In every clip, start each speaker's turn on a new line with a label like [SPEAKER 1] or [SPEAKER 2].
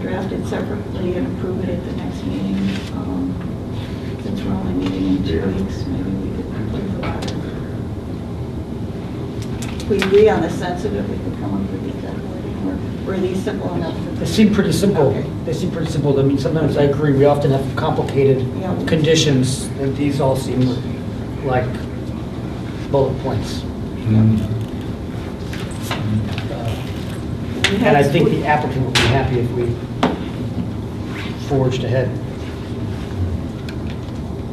[SPEAKER 1] draft it separately and approve it at the next meeting. Um, Since we're only meeting in two weeks, maybe we could complete the letter. If we agree on the sensitive, we can come up with the exact wording, or- or are these simple enough? that-
[SPEAKER 2] They seem pretty simple.
[SPEAKER 1] Okay.
[SPEAKER 2] They seem pretty simple. I mean, sometimes I agree, we often have complicated
[SPEAKER 1] Yeah.
[SPEAKER 2] conditions, and these all seem like bullet points.
[SPEAKER 1] Uh, We
[SPEAKER 2] And I
[SPEAKER 1] had-
[SPEAKER 2] think the applicant would be happy if we forged ahead.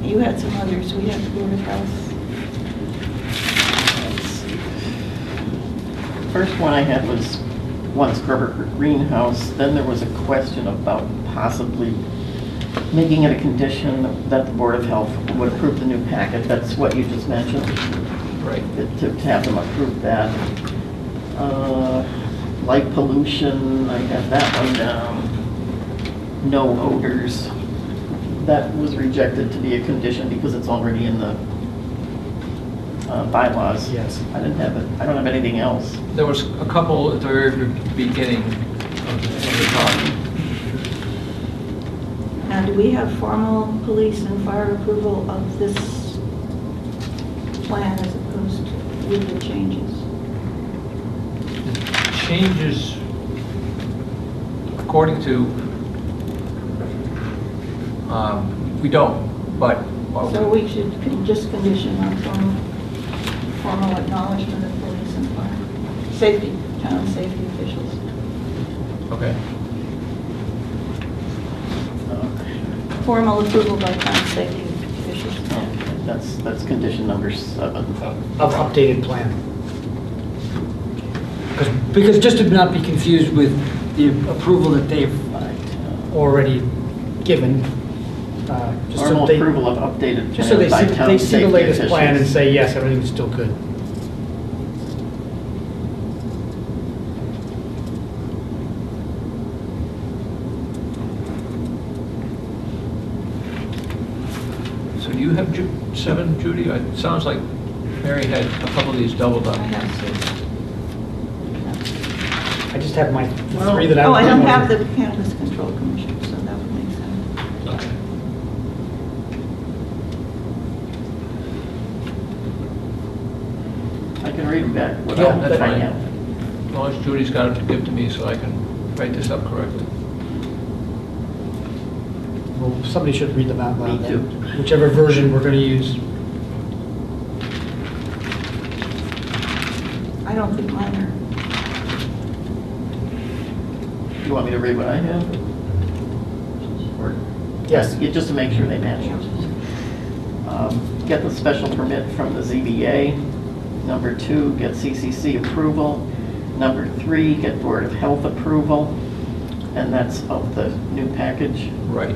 [SPEAKER 1] You had some others, we had the Board of Health.
[SPEAKER 3] First one I had was once Gerber Greenhouse, then there was a question about possibly making it a condition that the Board of Health would approve the new packet, that's what you just mentioned,
[SPEAKER 2] Right.
[SPEAKER 3] to to have them approve that. Uh, Light pollution, I have that one down. No odors, that was rejected to be a condition because it's already in the uh, bylaws.
[SPEAKER 2] Yes.
[SPEAKER 3] I didn't have it, I don't have anything else.
[SPEAKER 4] There was a couple at the very beginning of the- of the talk.
[SPEAKER 1] Now, do we have formal police and fire approval of this plan as opposed to with the changes?
[SPEAKER 4] The Changes, according to, um, we don't, but. uh,
[SPEAKER 1] So we should con- just condition on formal, formal acknowledgement of police and fire, safety, town safety officials.
[SPEAKER 4] Okay.
[SPEAKER 1] Formal approval by town safety officials.
[SPEAKER 3] That's, that's condition number seven.
[SPEAKER 1] Oh.
[SPEAKER 2] Of updated plan. 'Cause- Because just to not be confused with the approval that they've already given. uh, just so
[SPEAKER 3] Formal
[SPEAKER 2] they-
[SPEAKER 3] approval of updated
[SPEAKER 2] Just so they
[SPEAKER 3] plan
[SPEAKER 2] see,
[SPEAKER 3] by town
[SPEAKER 2] they see the
[SPEAKER 3] safety
[SPEAKER 2] latest plan and
[SPEAKER 3] officials.
[SPEAKER 2] say, yes, everything's still good.
[SPEAKER 4] So do you have Ju- seven, Judy? It sounds like Mary had a couple of these doubled
[SPEAKER 1] I
[SPEAKER 4] up.
[SPEAKER 1] have to.
[SPEAKER 2] I just have my
[SPEAKER 3] Well-
[SPEAKER 2] three that I.
[SPEAKER 1] Oh, I don't have the cannabis control commission, so that would make sense.
[SPEAKER 4] Okay.
[SPEAKER 3] I can read them back
[SPEAKER 2] Yeah,
[SPEAKER 3] without
[SPEAKER 2] that's
[SPEAKER 3] finding
[SPEAKER 4] fine.
[SPEAKER 3] out.
[SPEAKER 4] As long as Judy's got it to give to me so I can write this up correctly.
[SPEAKER 2] Well, somebody should read them out
[SPEAKER 3] Me
[SPEAKER 2] loud. then.
[SPEAKER 3] too.
[SPEAKER 2] Whichever version we're gonna use.
[SPEAKER 1] I don't think mine are,
[SPEAKER 3] You want me to read what I have? Or-
[SPEAKER 2] Yes.
[SPEAKER 3] Yeah, just to make sure they match.
[SPEAKER 1] yeah.
[SPEAKER 3] Um, Get the special permit from the ZBA. Number two, get CCC approval. Number three, get Board of Health approval. And that's of the new package.
[SPEAKER 4] Right.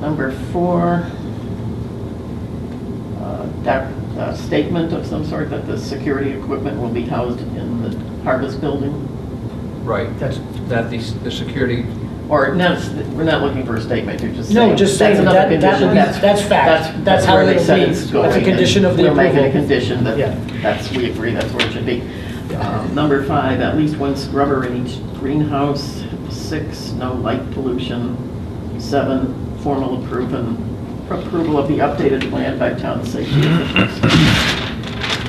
[SPEAKER 3] Number four, uh, doc- uh, statement of some sort that the security equipment will be housed in the harvest building?
[SPEAKER 4] Right.
[SPEAKER 2] That's-
[SPEAKER 4] That the, the security,
[SPEAKER 3] Or, no, it's- we're not looking for a statement, you're just saying.
[SPEAKER 2] No, just saying
[SPEAKER 3] another
[SPEAKER 2] that- that
[SPEAKER 3] condition,
[SPEAKER 2] would be- that's fact. That's how
[SPEAKER 3] where
[SPEAKER 2] it'll
[SPEAKER 3] they said
[SPEAKER 2] be.
[SPEAKER 3] it's
[SPEAKER 2] That's a
[SPEAKER 3] going, and
[SPEAKER 2] condition of the
[SPEAKER 3] We're making a
[SPEAKER 2] approval.
[SPEAKER 3] condition that,
[SPEAKER 2] Yeah.
[SPEAKER 3] that's, we agree, that's where it should be.
[SPEAKER 2] Yeah.
[SPEAKER 3] Um, Number five, at least one scrubber in each greenhouse. Six, no light pollution. Seven, formal approval, approval of the updated plan by town safety officials.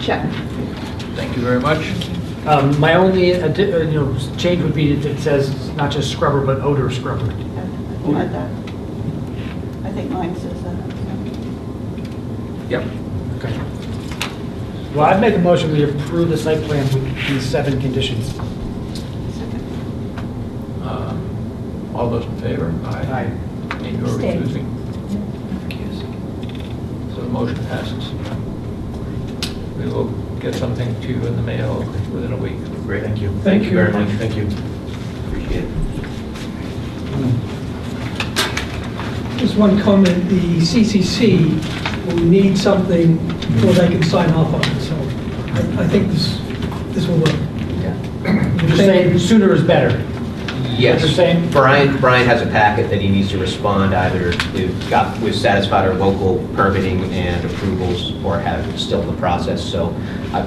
[SPEAKER 1] Check.
[SPEAKER 4] thank you very much.
[SPEAKER 2] Um, my only, addi- uh, you know, s- change would be that it says not just scrubber, but odor scrubber.
[SPEAKER 1] I had that. I think mine says that.
[SPEAKER 4] Yep.
[SPEAKER 2] Okay. Well, I'd make a motion, we approve the site plan with these seven conditions.
[SPEAKER 1] Second.
[SPEAKER 4] Uh, All those in favor?
[SPEAKER 2] Aye.
[SPEAKER 4] And you're
[SPEAKER 1] Abstain.
[SPEAKER 4] refusing? So the motion passes. We will get something to you in the mail within a week.
[SPEAKER 5] Great, thank you.
[SPEAKER 4] Thank you.
[SPEAKER 5] very much, thank you.
[SPEAKER 4] Appreciate it.
[SPEAKER 6] Just one comment, the CCC will need something before they can sign off on it, so I I think this, this will work.
[SPEAKER 2] You're saying sooner is better.
[SPEAKER 5] Yes.
[SPEAKER 2] What you're saying?
[SPEAKER 5] Brian, Brian has a packet that he needs to respond either if got, was satisfied our local permitting and approvals or have, it's still in the process. So I